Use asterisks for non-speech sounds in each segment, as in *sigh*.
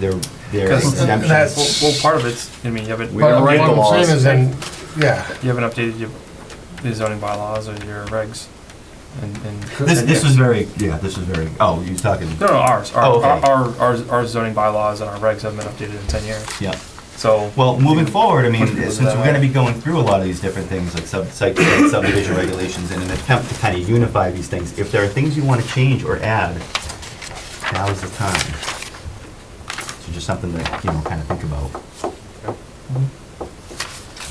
They're, they're Because exemptions. that's, well, well, part of it's, I mean, you haven't, you We don't But write what the I'm saying laws. is then, yeah, haven't updated your, your zoning bylaws or your regs. And, and. This, and- this was very, yeah, this was very, oh, you're talking, No, no, ours, our, Oh, okay. our, our, our zoning bylaws and our regs haven't been updated in ten years, yeah. so. Well, moving forward, I mean, Push people to since we're that gonna way. be going through a lot of these different things, like sub, site plan subdivision regulations, in an attempt to kind of unify these things, if there are things you wanna change or add, now is the time. So just something that, you know, kind of think about.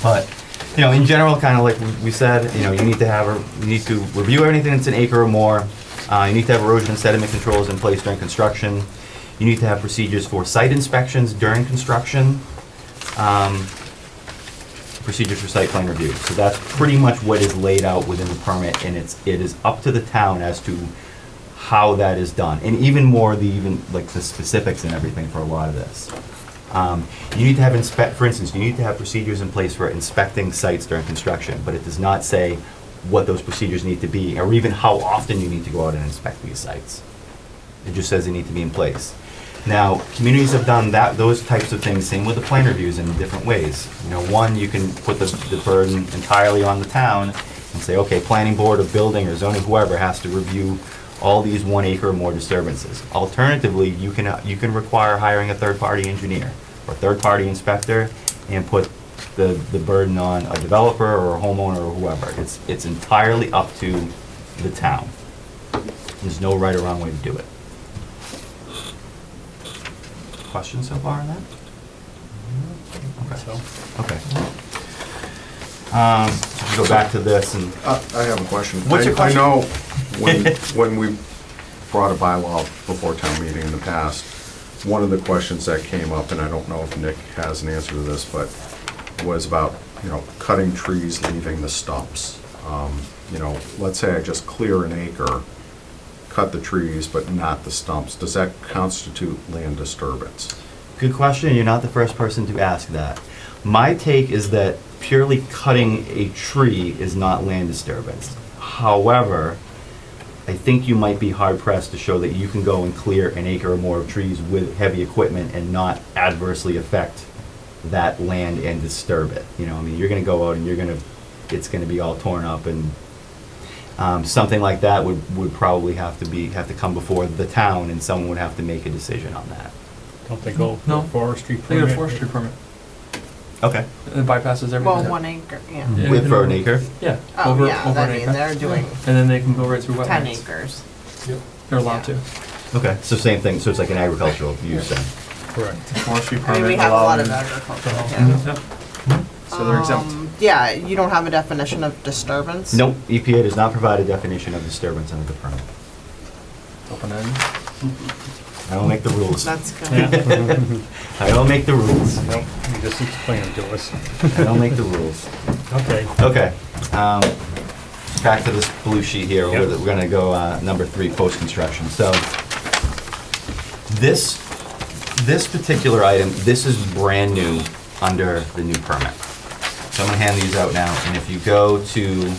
But, you know, in general, kind of like we- we said, you know, you need to have, a- you need to review anything that's an acre or more. Uh, you need to have erosion and sediment controls in place during construction. You need to have procedures for site inspections during construction. Um, procedures for site plan review. So that's pretty much what is laid out within the permit, and it's, it is up to the town as to how that is done, and even more the even, like, the specifics and everything for a lot of this. Um, You need to have inspect, for instance, you need to have procedures in place for inspecting sites during construction, but it does not say what those procedures need to be, or even how often you need to go out and inspect these sites. It just says they need to be in place. Now, communities have done that, those types of things, same with the plan reviews in different ways. You know, one, you can put the, the burden entirely on the town and say, okay, planning board or building or zoning, whoever has to review all these one acre or more disturbances. Alternatively, you can, uh, you can require hiring a third-party engineer or third-party inspector and put the, the burden on a developer or a homeowner or whoever. It's, it's entirely up to the town. There's no right or wrong way to do it. Questions so far on that? So, Okay. Um, so we Go back to this and, Uh, I have a question. What's your I- question? I know when, *laughs* when we brought a bylaw before town meeting in the past, one of the questions that came up, and I don't know if Nick has an answer to this, but was about, you know, cutting trees, leaving the stumps. Um, You know, let's say I just clear an acre, cut the trees, but not the stumps. Does that constitute land disturbance? good question, you're not the first person to ask that. My take is that purely cutting a tree is not land disturbance. However, I think you might be hard pressed to show that you can go and clear an acre or more of trees with heavy equipment and not adversely affect that land and disturb it. You know, I mean, you're gonna go out and you're gonna, it's gonna be all torn up and, um, something like that would, would probably have to be, have to come before the town and someone would have to make a decision on that. Don't they go No. for forestry they get a permit? forestry permit, Okay. it bypasses everything. Well, Yeah. One acre, yeah. Yeah. With for an acre? Yeah. Oh, over- yeah, over I an mean, acre. they're doing And then they can go right through wetlands. 10 acres. They're allowed to, yeah. Okay. So same thing, so it's like an agricultural use then? Correct. *laughs* forestry I mean, we permit have a lot allowed. of in- agricultural, yeah. Yeah. Mm-hmm. So they're exempt. Um, Yeah, you don't have a definition of disturbance? Nope, EPA does not provide a definition of disturbance under the permit. Open end. I don't make the rules. That's good. Yeah, I don't make the rules. no, you just explain them to us. I don't make the rules. Okay, Okay, um, back to this blue sheet here, we're Yep. we're gonna go, uh, number three, post-construction, so. This, this particular item, this is brand new under the new permit. So I'm gonna hand these out now, and if you go to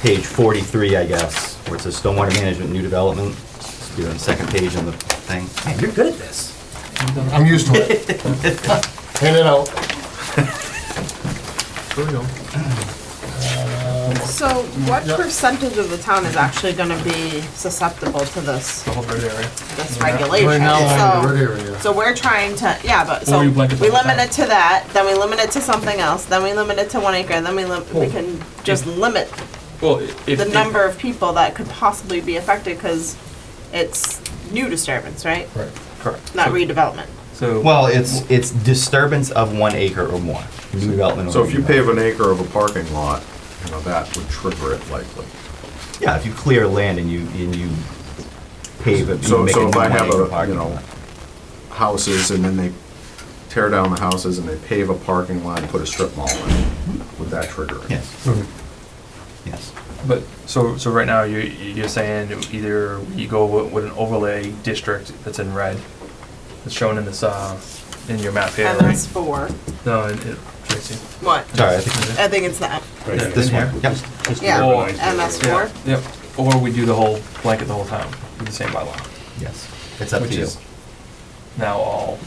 page forty-three, I guess, where it says stormwater management, new development, it's be on the second page on the thing. Man, you're good at this. I'm used to it. *laughs* Hand it out. So what Yeah. percentage of the town is actually gonna be susceptible to this, the whole red area. this Right regulation? now, I'm in the So- red area. So we're trying to, yeah, but, so Or we you blanket the whole limit town. it to that, then we limit it to something else, then we limit it to one acre, and then we lim, we Oh. can just limit Well, if. the if- number of people that could possibly be affected, because it's new disturbance, right? Right. Correct. Not So- redevelopment. So. Well, it's, it's disturbance of one acre or more, new development. or So if you redevelopment. pave an acre of a parking lot, you know, that would trigger it likely. Yeah, if you clear land and you, and you pave it, you So, make it so if I one have acre a, you parking know, lot. houses and then they tear down the houses and they pave a parking lot and put a strip mall in, would that trigger it? Yes. Yes. But, so, so right now, you, you're saying either you go with with an overlay district that's in red, that's shown in this, uh, in your map here, And that's right? four. No, in, in, Tracy. What? Sorry, I think I think it's that. right Yeah. there. this one, yep. Yeah, Oh, MS four. Yeah, Yep, or we do the whole, blanket the whole town with the same bylaw, Yes. It's up to which you. is now all